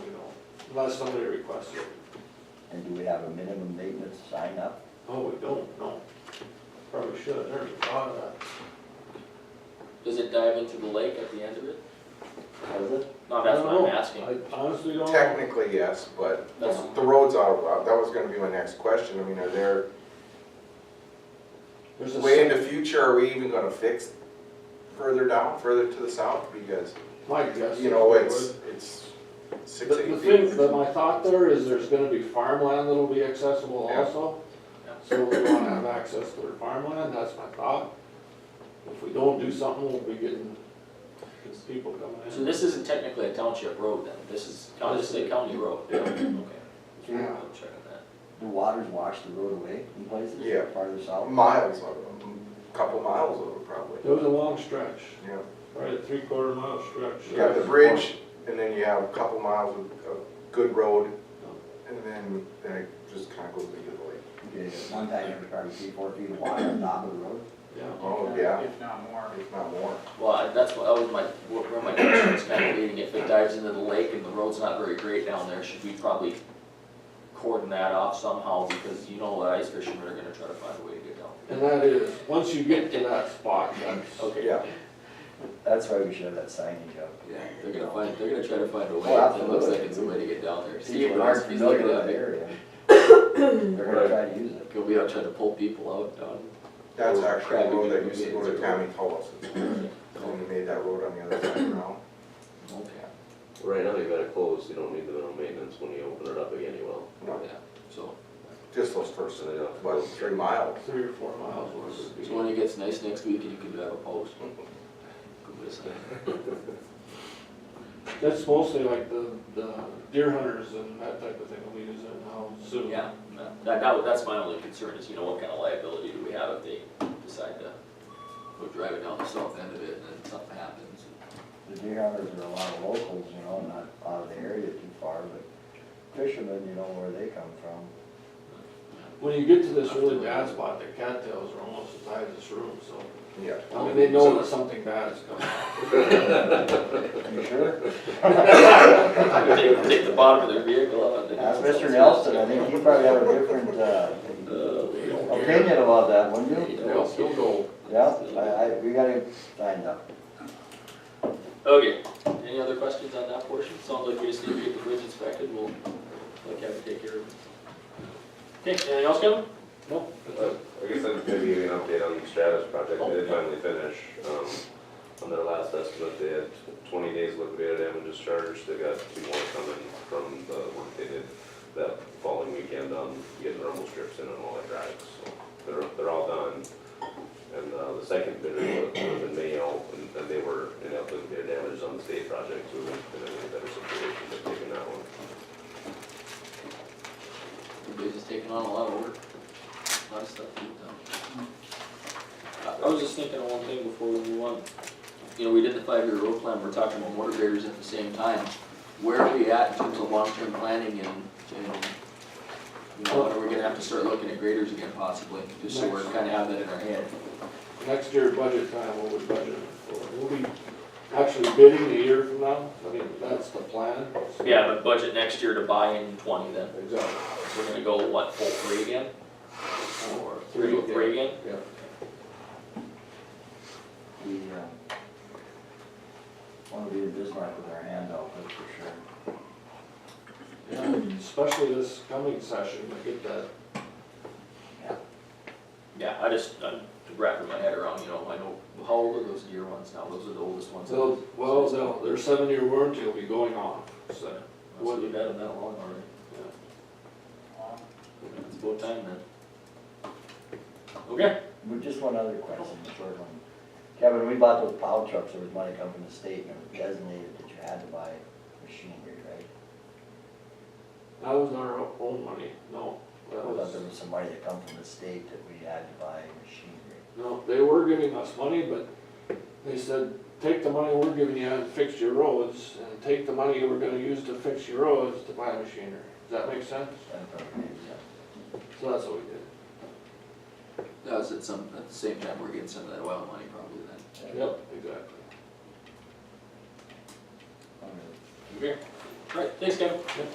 unless somebody requests it. And do we have a minimum maintenance sign up? Oh, we don't, no. Probably should, I never thought of that. Does it dive into the lake at the end of it? Does it? No, that's I what don't I'm know. asking. I honestly don't know. Technically, yes, but That's, the roads are, uh, that was gonna be my next question, I mean, are there, There's way in a, the future, are we even gonna fix further down, further to the south, because, my guess. you know, is it's, it's The, six, the eight thing, feet. that my thought there is there's gonna be farmland that'll be accessible Yeah. also. Yeah. So we wanna have access to their farmland, that's my thought. If we don't do something, we'll be getting, getting people coming in. so this isn't technically a township road then, this is, county- this is a county road? Yeah. Okay. Yeah. I'll check on that. Do waters wash the road away in places? Yeah. Farther south? Miles of them, couple miles of them probably, It was a long stretch, yeah. right, a three quarter mile stretch. You got the bridge, and then you have a couple miles of, of good road, and then, then it just kinda goes into the Okay, lake. one time every probably three, four feet of water on top of the road. Yeah. Oh, yeah, If not more. if not more. Well, I- that's what, that was my, where where my question was kind of leading, if it dives into the lake and the road's not very great down there, should we probably cordon that off somehow, because you know that ice fishermen are gonna try to find a way to get down. And that is, once you get to that spot, that's, Okay. Yeah, That's why we should have that signage up. Yeah, they're gonna find, they're gonna try to find a way, Oh, that looks like absolutely. it's a way to get down there. Steve People aren't Rossby's familiar looking with at that me, area. They're gonna try to use it. he'll be out trying to pull people out down. that's actually the road that used to go to Tommy Tullis, when we made that road on the other side around. Okay, Right now, you gotta close, you don't need the minimum maintenance when you open it up again, you will. No, yeah, so, just those first, about three miles. three or four miles worth so when of. it gets nice next week and you can have a post. Go with us. That's mostly like the, the deer hunters and that type of thing will use it now, so. Yeah, that, that, that's my only concern is, you know, what kind of liability do we have if they decide to go drive it down the south end of it and then something happens? The deer hunters are a lot of locals, you know, not out of the area too far, but fishermen, you know where they come from. When you get to this really bad spot, the cattails are almost as high as this room, so. Yeah. I mean, they know that something bad is coming. You sure? Take, take the bottom of their vehicle out and then. Ask Mr. Nelson, I think he probably had a different, uh, Uh, we don't care. opinion about that, wouldn't We you? don't care. Yeah, I, I, we gotta sign up. Okay, any other questions on that portion? Sounds like we just need to get the bridge inspected, we'll, like, have to take care of it. Okay, anything else, Kevin? Nope. I guess I'd maybe give you an update on the Stratus project, they did finally finish, um, on their last estimate, they had twenty days liquidated damages charged, they got two more coming from the work they did that following weekend on getting rumble strips in and all that drives, so they're, they're all done. And, uh, the second bidder was, was in Mayo, and, and they were, in up with their damages on the state project, so they're in a better situation than taking that one. The business taking on a lot of work, a lot of stuff to be done. I, I was just thinking of one thing before we move on. You know, we did the five-year road plan, we're talking about motor graders at the same time. Where are we at in terms of long-term planning and, and, you know, are we gonna have to start looking at graders again possibly? Just so we're kinda have that in our head. Next year budget time, what we budget for, we'll be actually bidding a year from now, I mean, that's the plan. so- but budget next year to buy in twenty then. Exactly. We're gonna go, what, full three again? Or Three again. Three again? Yeah. We, um, wanna be in Bismarck with our hand out, that's for sure. Yeah, Especially this coming session, I get that Yeah, I just, I'm wrapping my head around, you know, I know, how old are those deer ones now? Those are the oldest ones. So, well, no, their seven-year warranty will be going on, so. So we've had them that long already. It's about time then. Okay. We, just one other question, a short one. Kevin, when we bought those plow trucks, there was money coming from the state, and it was designated that you had to buy machinery, right? That was our own money, no, I that thought there was, was some money that come from the state that we had to buy machinery. no, they were giving us money, but they said, take the money we're giving you and fix your roads, and take the money we're gonna use to fix your roads to buy machinery. Does that make sense? That probably made sense. So that's what we did. That was at some, at the same time we're getting some of that oil money probably then. Yep. Exactly. Okay. Okay. All right, thanks Kevin.